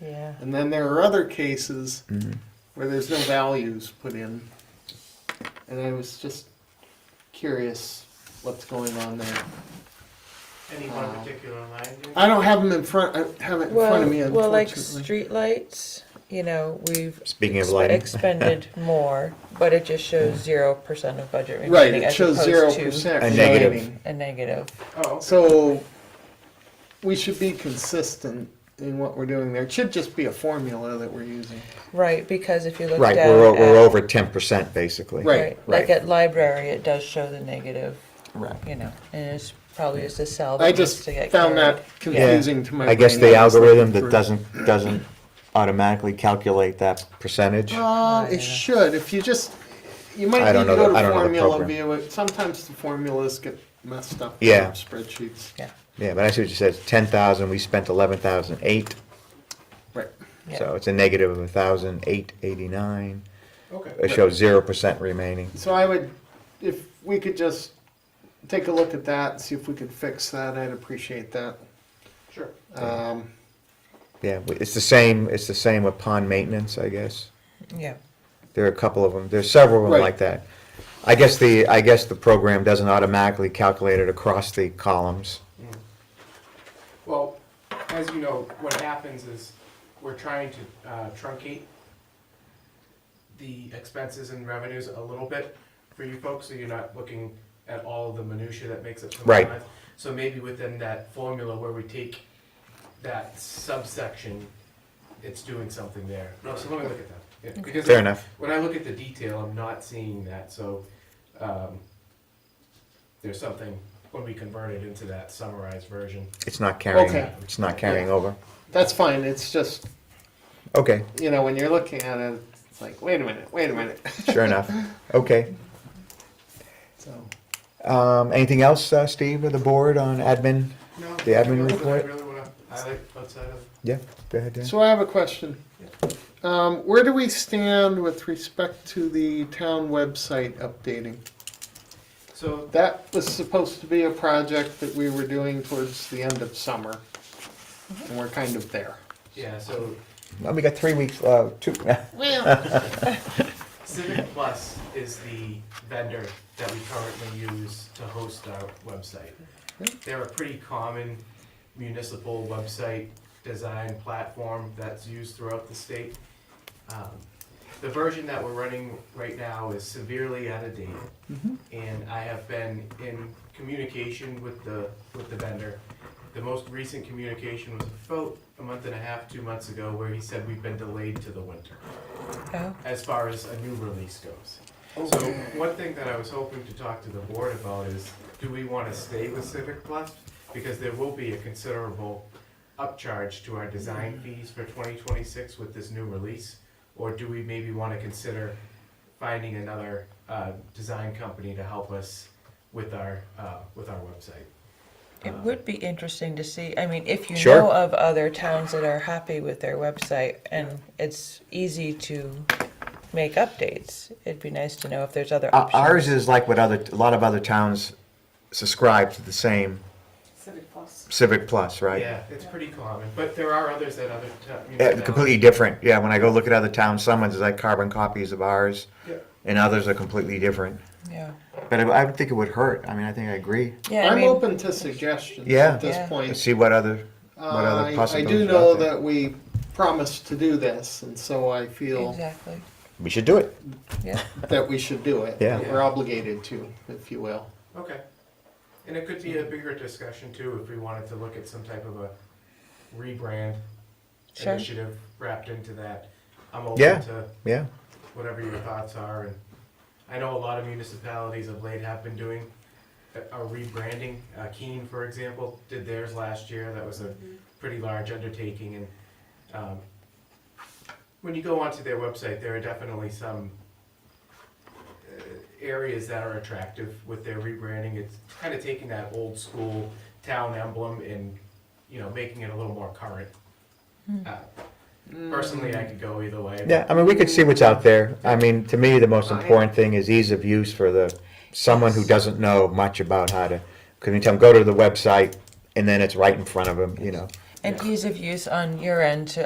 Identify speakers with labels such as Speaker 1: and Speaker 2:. Speaker 1: Yeah.
Speaker 2: And then there are other cases
Speaker 3: Mm-hmm.
Speaker 2: where there's no values put in. And I was just curious what's going on there.
Speaker 4: Any one particular line? there?
Speaker 2: I don't have them in front, I have it in front
Speaker 1: Well,
Speaker 2: of me
Speaker 1: well, like
Speaker 2: unfortunately.
Speaker 1: streetlights, you know, we've
Speaker 3: Speaking of
Speaker 1: exp-
Speaker 3: lighting.
Speaker 1: expended more, but it just shows zero percent of budget remaining
Speaker 2: Right, it
Speaker 1: as
Speaker 2: shows
Speaker 1: opposed
Speaker 2: zero
Speaker 1: to
Speaker 2: percent
Speaker 3: A negative.
Speaker 2: remaining.
Speaker 1: a negative.
Speaker 4: Oh, okay.
Speaker 2: So we should be consistent in what we're doing there. It should just be a formula that we're using.
Speaker 1: Right, because if you look
Speaker 3: Right,
Speaker 1: down
Speaker 3: we're, o- we're
Speaker 1: at-
Speaker 3: over ten percent basically.
Speaker 2: Right.
Speaker 1: like
Speaker 3: right.
Speaker 1: at library, it does show the negative,
Speaker 2: Right.
Speaker 1: you know, and it's probably just a cell. that
Speaker 2: I
Speaker 1: needs
Speaker 2: just
Speaker 1: to get
Speaker 2: found that
Speaker 1: carried.
Speaker 2: confusing to my brain.
Speaker 3: I guess the
Speaker 2: when was looking
Speaker 3: algorithm
Speaker 2: through
Speaker 3: that
Speaker 2: it.
Speaker 3: doesn't, doesn't automatically calculate that percentage.
Speaker 2: Uh,
Speaker 1: Yeah.
Speaker 2: it should, if you just, you might
Speaker 3: I
Speaker 2: need
Speaker 3: don't
Speaker 2: to
Speaker 3: know the-
Speaker 2: go
Speaker 3: I
Speaker 2: to
Speaker 3: don't know the
Speaker 2: formula
Speaker 3: program.
Speaker 2: view, It- sometimes the formulas get messed up in
Speaker 3: Yeah.
Speaker 2: spreadsheets.
Speaker 1: Yeah,
Speaker 3: Yeah, but I see what you said, ten thousand, we spent eleven thousand eight,
Speaker 2: Right,
Speaker 1: yeah.
Speaker 3: so it's a negative of a thousand eight eighty-nine.
Speaker 4: Okay.
Speaker 3: It shows zero percent remaining.
Speaker 2: so I would, if we could just take a look at that, see if we could fix that, I'd appreciate that.
Speaker 4: Sure.
Speaker 2: Um,
Speaker 3: Yeah, w- it's the same, it's the same with pond maintenance, I guess.
Speaker 1: yeah.
Speaker 3: There are a couple of them, there's several of them
Speaker 2: Right.
Speaker 3: like that. I guess the, I guess the program doesn't automatically calculate it across the columns.
Speaker 4: Well, as you know, what happens is we're trying to uh, truncate the expenses and revenues a little bit for you folks, so you're not looking at all of the minutia that makes up. the
Speaker 3: Right.
Speaker 4: line. So maybe within that formula where we take that subsection, it's doing something there. No, so let me look at that. Yeah, because
Speaker 3: Fair enough.
Speaker 4: When I look at the detail, I'm not seeing that, so, um, there's something, when we convert it into that summarized version.
Speaker 3: It's not carrying,
Speaker 2: Okay.
Speaker 3: it's not carrying over.
Speaker 2: That's fine, it's just,
Speaker 3: Okay,
Speaker 2: you know, when you're looking at it, it's like, wait a minute, wait a minute,
Speaker 3: sure enough. Okay.
Speaker 2: so.
Speaker 3: Um, anything else, uh, Steve, or the board on admin?
Speaker 4: No.
Speaker 3: The admin
Speaker 4: I
Speaker 3: report?
Speaker 4: really wanna highlight outside of,
Speaker 3: Yeah, go ahead, Dan.
Speaker 2: So I have a question. Um, where do we stand with respect to the town website updating?
Speaker 4: so,
Speaker 2: That was supposed to be a project that we were doing towards the end of summer. And we're kind of there.
Speaker 4: yeah, so
Speaker 3: Well, we got three weeks, uh, two,
Speaker 4: Civic Plus is the vendor that we currently use to host our website. They're a pretty common municipal website design platform that's used throughout the state. Um, The version that we're running right now is severely out of date. and I have been in communication with the, with the vendor. The most recent communication was about a month and a half, two months ago, where he said we've been delayed to the winter,
Speaker 1: Oh,
Speaker 4: as far as a new release goes.
Speaker 3: Oh.
Speaker 4: So one thing that I was hoping to talk to the board about is, do we want to stay with Civic Plus? Because there will be a considerable upcharge to our design
Speaker 3: Mm.
Speaker 4: fees for twenty twenty-six with this new release. Or do we maybe want to consider finding another uh, design company to help us with our uh, with our website.
Speaker 1: it would be interesting to see. I mean, if you
Speaker 3: Sure.
Speaker 1: know of other towns that are happy with their website and it's easy to make updates, it'd be nice to know if there's other
Speaker 3: O-
Speaker 1: options.
Speaker 3: Ours is like what other, a lot of other towns subscribe to the same
Speaker 5: Civic Plus.
Speaker 3: Civic Plus, right?
Speaker 4: Yeah, it's pretty common, but there are others that other ta- you know,
Speaker 3: Yeah,
Speaker 4: towns-
Speaker 3: completely different. Yeah, when I go look at other towns, some is like carbon copies of ours,
Speaker 4: Yeah.
Speaker 3: and others are completely different.
Speaker 1: Yeah.
Speaker 3: But I- I would think it would hurt. I mean, I think I agree.
Speaker 1: Yeah, I
Speaker 2: I'm
Speaker 1: mean,
Speaker 2: open to suggestions
Speaker 3: Yeah.
Speaker 2: at this
Speaker 1: Yeah.
Speaker 3: Let's
Speaker 2: point.
Speaker 3: see what other,
Speaker 2: Uh,
Speaker 3: what other
Speaker 2: I I
Speaker 3: possibilities
Speaker 2: do
Speaker 3: are
Speaker 2: know
Speaker 3: out there.
Speaker 2: that we promised to do this, and so I feel
Speaker 1: exactly.
Speaker 3: we should do it.
Speaker 1: Yeah.
Speaker 2: that we should do it.
Speaker 3: Yeah.
Speaker 2: that We're obligated to, if you will.
Speaker 4: Okay, and it could be a bigger discussion too if we wanted to look at some type of a rebrand
Speaker 1: Sure.
Speaker 4: initiative wrapped into that. I'm open
Speaker 3: Yeah.
Speaker 4: to
Speaker 3: Yeah,
Speaker 4: whatever your thoughts are, and I know a lot of municipalities of late have been doing a a rebranding. Uh, Keene, for example, did theirs last year, that was a pretty large undertaking, and, um, when you go onto their website, there are definitely some uh, areas that are attractive with their rebranding, it's kinda taking that old school town emblem and, you know, making it a little more current. Uh, Personally, I could go either way. but-
Speaker 3: yeah. I mean, we could see what's out there. I mean, to me, the most important thing is ease of use for the someone who doesn't know much about how to. Can you tell them go to the website, and then it's right in front of them. You know.
Speaker 1: And ease of use on your end to